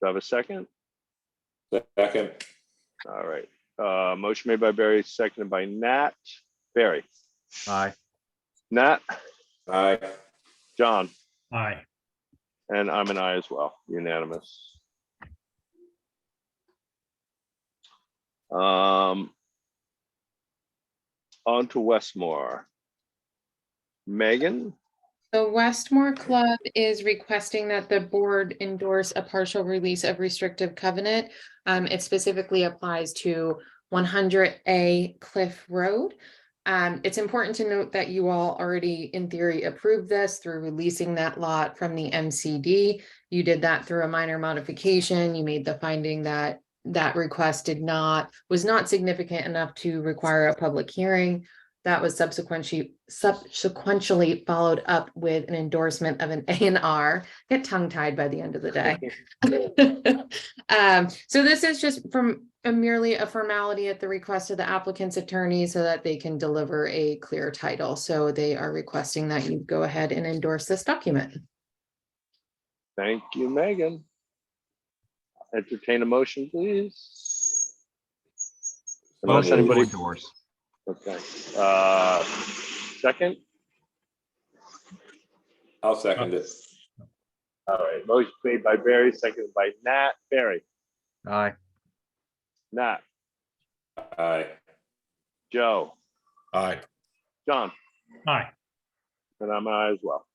Do I have a second? Second, All right. Uh, motion made by Barry, seconded by Nat. Barry, Aye. Nat, aye, John, Aye. and I'm an I as well, unanimous. Um. On to Westmore. Megan, The Westmore Club is requesting that the board endorse a partial release of restrictive covenant. Um, it specifically applies to one hundred A Cliff Road. Um, it's important to note that you all already, in theory, approved this through releasing that lot from the MCD. You did that through a minor modification. You made the finding that that request did not, was not significant enough to require a public hearing. That was subsequently, subsequently followed up with an endorsement of an A and R. Get tongue tied by the end of the day. Um, so this is just from a merely a formality at the request of the applicant's attorney so that they can deliver a clear title. So they are requesting that you go ahead and endorse this document. thank you, Megan. Entertain a motion, please. Unless Motion to anybody, endorse. okay, uh, second? I'll second it. All right, motion made by Barry, seconded by Nat. Barry, Aye. Nat, Aye, Joe, aye, John, Aye. and I'm an I as well.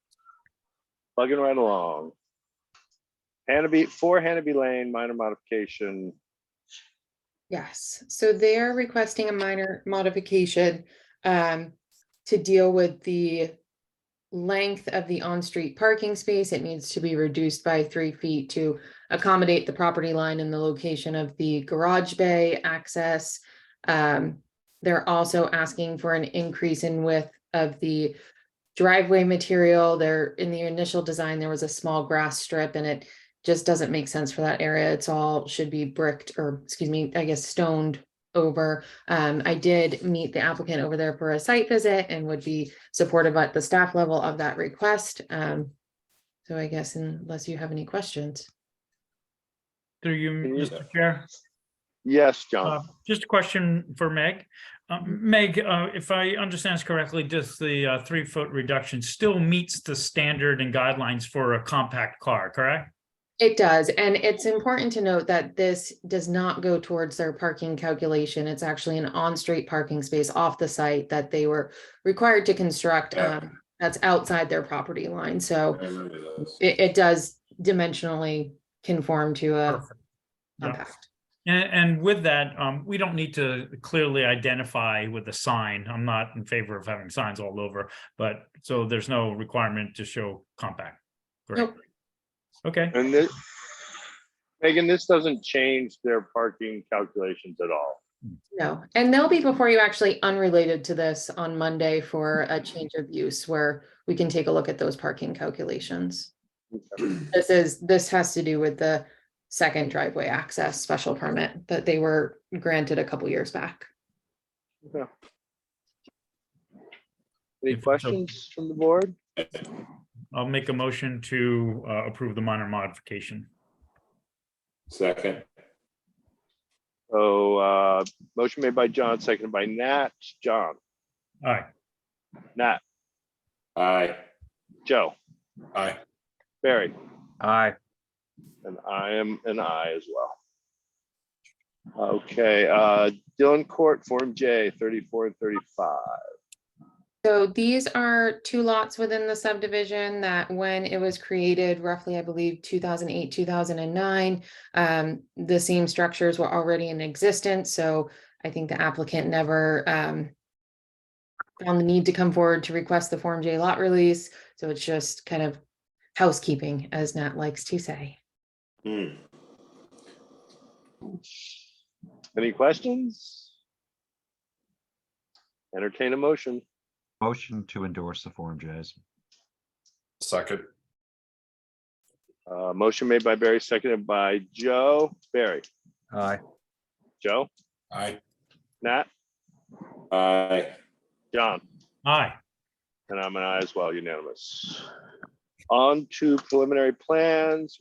Plugging right along. Hannaby, for Hannaby Lane, minor modification. Yes, so they're requesting a minor modification um, to deal with the length of the on-street parking space. It needs to be reduced by three feet to accommodate the property line and the location of the garage bay access. Um, They're also asking for an increase in width of the driveway material. There, in the initial design, there was a small grass strip and it just doesn't make sense for that area. It's all should be bricked or, excuse me, I guess stoned over. Um, I did meet the applicant over there for a site visit and would be supportive at the staff level of that request. Um, so I guess unless you have any questions. Through you, Can you- Oh. Mr. Chair. Yes, Uh, John, Just a question for Meg. Um, Meg, uh, if I understand this correctly, does the uh, three-foot reduction still meets the standard and guidelines for a compact car, correct? It does, and it's important to note that this does not go towards their parking calculation. It's actually an on-street parking space off the site that they were required to construct. Yeah. um, that's outside their property line, so. I remember those. It, it does dimensionally conform to a Perfect. Yeah. compact. And, and with that, um, we don't need to clearly identify with a sign. I'm not in favor of having signs all over, but so there's no requirement to show compact. Great. Nope. Okay, and this, Megan, this doesn't change their parking calculations at all. No, and they'll be before you actually unrelated to this on Monday for a change of use where we can take a look at those parking calculations. This is, this has to do with the second driveway access special permit that they were granted a couple years back. Any If so- questions from the board? I'll make a motion to uh, approve the minor modification. Second, So, uh, motion made by John, seconded by Nat. John, All right, Nat, aye, Joe, aye. Barry, Aye. and I am an I as well. Okay, uh, Dylan Court, Form J, thirty-four and thirty-five. So these are two lots within the subdivision that when it was created roughly, I believe, two thousand eight, two thousand and nine. Um, the same structures were already in existence, so I think the applicant never um. Found the need to come forward to request the Form J lot release, so it's just kind of housekeeping, as Nat likes to say. Hmm. Any questions? Entertain a motion. Motion to endorse the Form J's. Second, Uh, motion made by Barry, seconded by Joe. Barry, Aye. Joe, aye, Nat, aye, John, aye. and I'm an I as well, unanimous. On to preliminary plans,